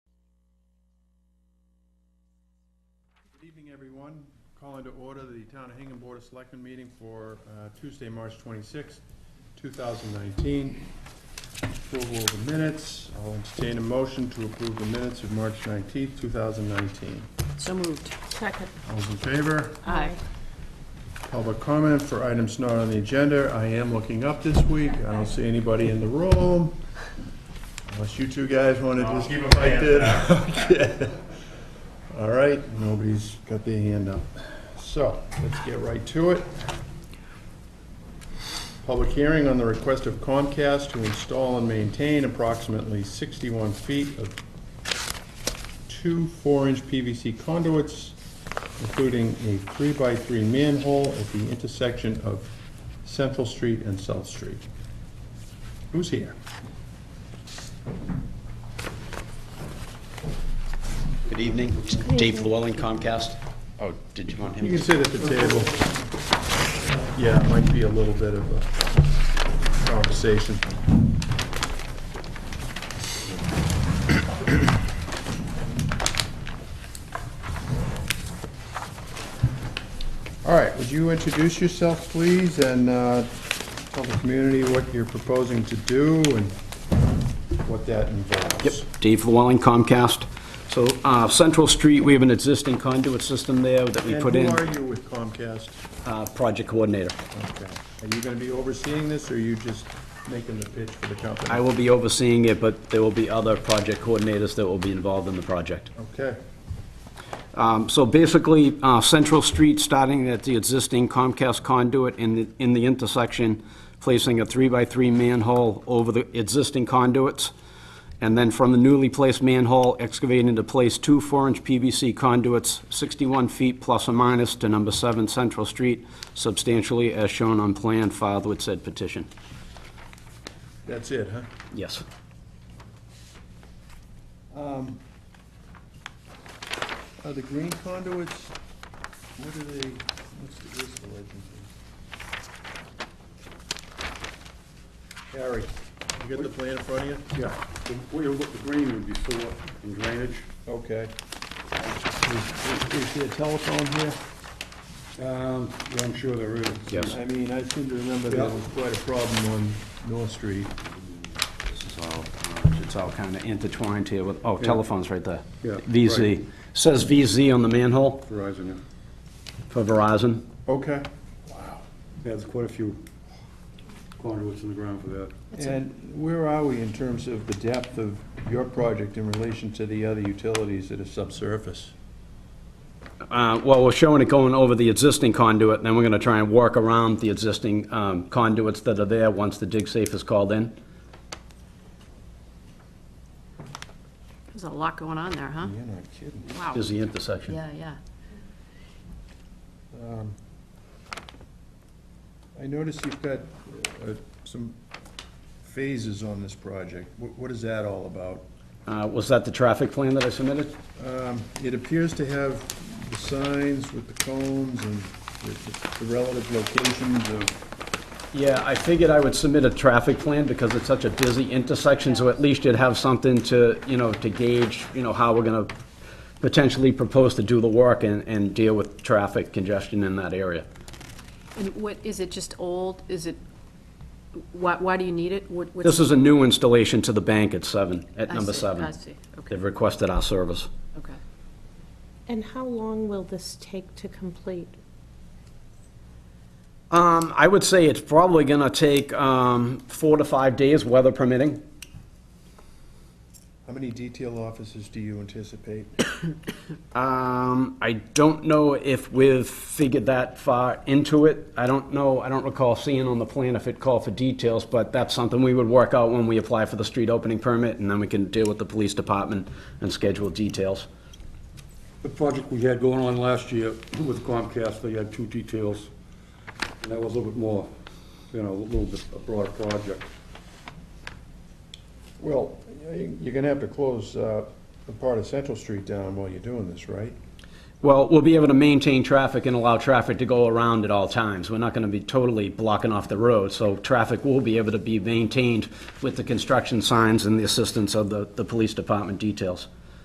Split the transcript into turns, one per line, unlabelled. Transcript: evening, everyone. Calling to order the Town of Hingham Board of Selectmen meeting for uh, Tuesday, March 26th, 2019. Approval of the minutes. I'll entertain a motion to approve the minutes of March 19th, 2019.
So moved.
Second.
All those in favor?
Aye.
Public comment for items not on the agenda. I am looking up this week. I don't see anybody in the room. Unless you two guys want to
I'll
just
keep a
fight
plan for
this. All right, nobody's got their hand up. So, let's get right to it. Public hearing on the request of Comcast to install and maintain approximately 61 feet of two four-inch PVC conduits, including a three-by-three manhole at the intersection of Central Street and South Street. Who's here?
Good evening, It's Dave Llewellyn Comcast. Oh, did you want
You
him?
can sit at the table. Yeah, it might be a little bit of a conversation. All right, would you introduce yourself, please, and uh, tell the community what you're proposing to do and what that involves?
Yep, Dave Llewellyn Comcast. So uh, Central Street, we have an existing conduit system there that we
And
put
who
in.
are you with Comcast?
Uh, Project coordinator.
Okay. Are you gonna be overseeing this, or are you just making the pitch for the company?
I will be overseeing it, but there will be other project coordinators that will be involved in the project.
Okay.
Um, So basically, uh, Central Street, starting at the existing Comcast conduit in the, in the intersection, placing a three-by-three manhole over the existing conduits, and then from the newly placed manhole, excavating to place two four-inch PVC conduits, 61 feet plus or minus to number 7 Central Street, substantially as shown on plan filed with said petition.
That's it, huh?
Yes.
Are Uh, the green conduits, what are they, what's the, where's the legend? here? Harry, you got the plan in front of you?
Yeah, the way you look, the green would be sewer and drainage.
Okay. Is is there a telephone here?
Um, yeah, I'm sure there is.
Yes.
I mean, I seem to remember there was quite a problem on North Street.
This is all, uh, it's all kind of intertwined here with, oh, telephone's right there.
Yeah,
VZ. Says VZ on the manhole
Verizon, yeah.
for Verizon.
Okay.
Yeah, There's quite a few conduits in the ground for that.
And where are we in terms of the depth of your project in relation to the other utilities that are subsurface?
Uh, Well, we're showing it going over the existing conduit, then we're going to try and work around the existing um, conduits that are there once the dig safe is called in.
There's a lot going on there, huh?
You're not kidding.
Wow.
Is the intersection.
Yeah, yeah.
I notice you've got uh, some phases on this project. Wh- What is that all about?
Uh, Was that the traffic plan that I submitted?
Um, It appears to have the signs with the cones and the- the relative locations of,
Yeah, I figured I would submit a traffic plan because it's such a busy intersection, so at least you'd have something to, you know, to gauge, you know, how we're gonna potentially propose to do the work and, and deal with traffic congestion in that area.
And what, is it just old? Is it, why, why do you need it? What, what's?
This is a new installation to the bank at seven, at
I
number
see,
seven.
I see, okay,
They've requested our service.
okay.
And how long will this take to complete?
Um, I would say it's probably gonna take, um, four to five days, weather permitting.
how many detail offices do you anticipate?
Um, I don't know if we've figured that far into it. I don't know, I don't recall seeing on the plan if it called for details, but that's something we would work out when we apply for the street opening permit, and then we can deal with the police department and schedule details.
The project we had going on last year with Comcast, they had two details. And that was a little bit more, you know, a little bit a broader project.
Well, you're going to have to close uh, the part of Central Street down while you're doing this, right?
Well, we'll be able to maintain traffic and allow traffic to go around at all times. We're not gonna be totally blocking off the road, so traffic will be able to be maintained with the construction signs and the assistance of the, the police department details.